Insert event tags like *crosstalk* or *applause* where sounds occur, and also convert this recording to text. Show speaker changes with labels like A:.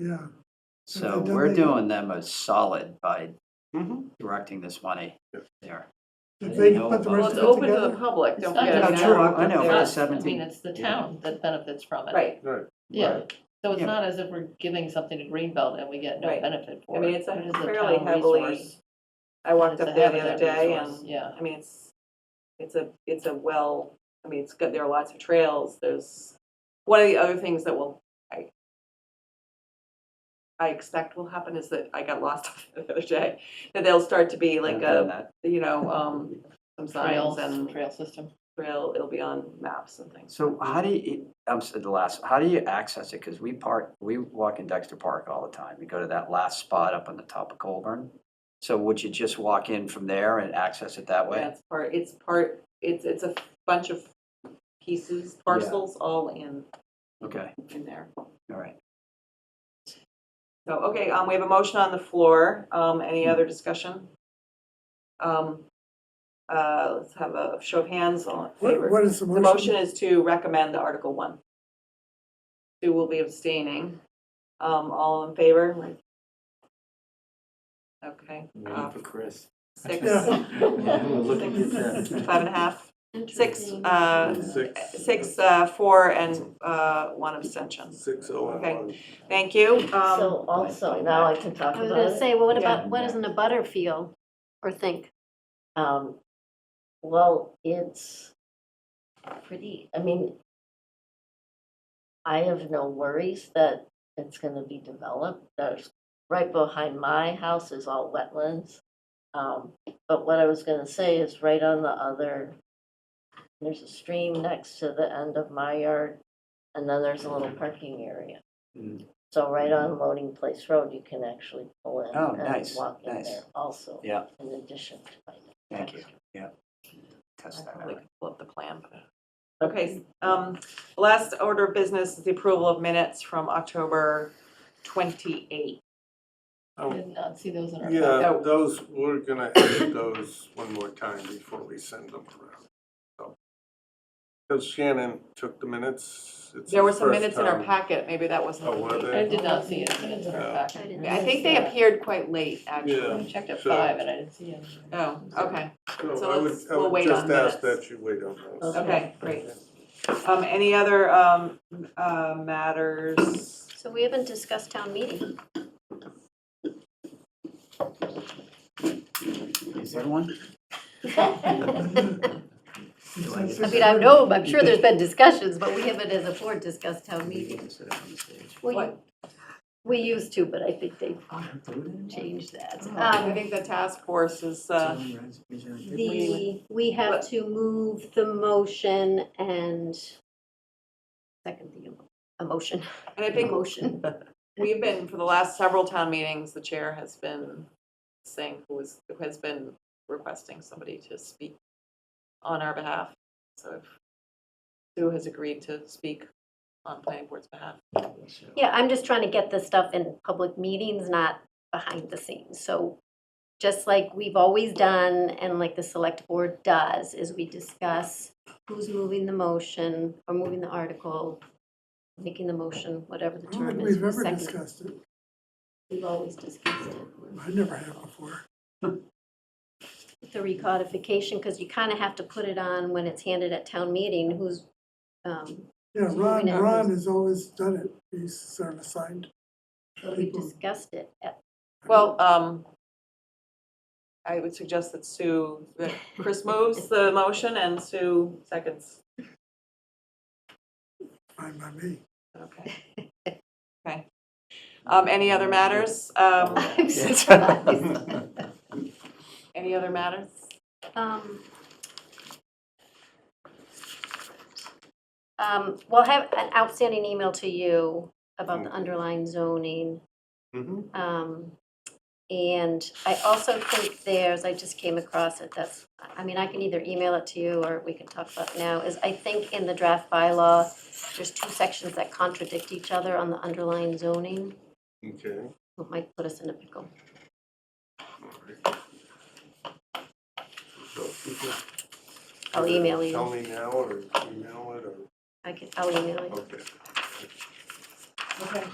A: yeah.
B: So
A: they've done
B: we're
A: that-
B: doing them a solid by Mm-hmm.
C: Mhm.
B: directing this money
C: Yeah.
B: there.
A: If
B: I
A: they
B: know
A: put the
B: about
D: Well,
A: rest
D: it's
A: of it
B: that.
D: open to the
A: together.
D: public,
E: It's
D: don't
E: not
D: forget.
E: just
D: it's
B: No, true,
D: not
B: I
D: us.
B: know, it's
D: I mean,
B: 17.
D: it's the town that benefits from it.
E: Right,
C: Right.
D: Yeah,
C: right.
D: so it's
B: Yeah.
D: not as if we're giving something to Greenbelt and we get no
E: Right.
D: benefit for
E: I
D: it.
E: mean, it's a
D: It is a
E: fairly
D: town
E: heavily,
D: resource.
E: I walked
D: It's
E: up
D: a
E: there the other
D: habitat
E: day
D: resource,
E: and,
D: Yeah,
E: I mean, it's, it's a, it's a well, I mean, it's good, there are lots of trails, there's, one of the other things that will, I, I expect will happen is that I got lost *laughs* the other day, that they'll start to be like
D: uh,
E: a, you know, um, some signs
D: trails,
E: and
D: trail system.
E: trail, it'll be on maps and things.
B: So how do you, I'm, s- the last, how do you access it? Because we park, we walk in Dexter Park all the time. We go to that last spot up on the top of Colburn. So would you just walk in from there and access it that way?
E: That's part, it's part, it's, it's a bunch of pieces, parcels, all in,
B: Okay,
E: in there.
B: all right.
E: So, okay, um, we have a motion on the floor. Um,
A: Hmm.
E: any other discussion? Um, uh, let's have a show of hands on
A: What,
E: favor.
A: what is the
E: The
A: motion?
E: motion is to recommend the Article One. Sue will be abstaining. Um, all in favor? Okay, uh,
F: Waiting for Chris.
E: six,
A: Yeah.
E: five and a half, six, uh,
C: Six.
E: six, uh, four, and, uh, one abstention.
C: Six oh and
E: Okay.
C: one.
E: Thank you. Um,
G: So also, now I can talk
H: I was
G: about
H: gonna
G: it.
H: say, well, what
E: Yeah.
H: about, what doesn't a butter feel or think?
G: Um, Well, it's pretty, I mean, I have no worries that it's gonna be developed. There's, right behind my house is all wetlands. Um, But what I was gonna say is right on the other, there's a stream next to the end of my yard, and then there's a little parking area.
B: Mm.
G: So right on Loading Place Road, you can actually pull in
B: Oh,
G: and
B: nice,
G: walk in
B: nice.
G: there also.
B: Yeah.
G: In addition to my.
B: Thank you. Yeah. Test that
E: probably
B: out.
E: could pull up the plan, but. Okay, um, last order of business is the approval of minutes from October twenty-eight.
D: I
C: Oh,
D: Did not see those in our. packet.
E: Uh, oh.
C: Yeah, those, we're gonna edit those one more time before we send them around. So, Cause Shannon took the minutes. It's
E: There
C: her
E: were some
C: first
E: minutes in our
C: time.
E: packet, maybe that wasn't.
C: Oh, were
E: complete.
D: I
C: they?
D: did not see any minutes in our
C: Yeah.
D: packet.
H: didn't
E: I
H: miss
E: think they
H: that.
E: appeared quite late,
D: I
E: actually.
D: checked at
C: So-
D: five and I didn't see any.
E: Oh, okay, so
C: I would-
E: let's-
C: I
E: we'll
C: would
E: wait on
C: Just ask
E: minutes.
C: that you wait on those.
E: okay, great. Um, any other, um, uh, matters?
H: So we haven't discussed town meeting.
B: Is there one?
H: *laughs* I
B: Do I get to-
H: mean, I know, I'm sure there's been discussions, but we haven't as a board discussed town
B: Do you
H: meeting.
B: get to sit up on the stage?
H: We-
E: What?
H: We used to, but I think they
B: Someone
H: changed that.
E: I
H: Um,
E: think the task force is, uh,
B: raise- raise your hand.
H: The, we have to move the motion and second the emotion,
E: and I think
H: emotion.
E: We've been, for the last several town meetings, the chair has been saying who is, who has been requesting somebody to speak on our behalf. So if Sue has agreed to speak on planning board's behalf.
H: Yeah, I'm just trying to get this stuff in public meetings, not behind the scenes. So just like we've always done and like the select board does, is we discuss who's moving the motion or moving the article, making the motion, whatever the
A: I don't
H: term
A: think
H: is.
A: we've
H: who's
A: ever
H: second.
A: discussed it.
H: We've always discussed it.
A: I never have before.
H: The recodification, because you kind of have to put it on when it's handed at town meeting, who's, um,
A: Yeah,
H: Moving
A: Ron,
H: outwards.
A: Ron has always done it. He's sort of assigned.
H: we
A: people.
H: discussed it at
E: Well, um, I would suggest that Sue, that Chris moves the motion and Sue seconds.
A: Fine by me.
E: Okay. Okay. Um, any other matters? Um,
H: *laughs*
B: Yeah.
H: I'm surprised.
E: any other matters?
H: Um, um, We'll have an outstanding email to you about the underlying zoning.
F: Mm-hmm.
C: Mhm.
H: Um, And I also think there's, I just came across it, that's, I mean, I can either email it to you or we can talk about it now, is I think in the draft bylaw, there's two sections that contradict each other on the underlying zoning,
C: Okay.
H: It might put us in a pickle.
C: So, you can
H: I'll email you.
C: Tell me now or email it or,
H: I can, I'll email you.
C: okay.
E: Okay.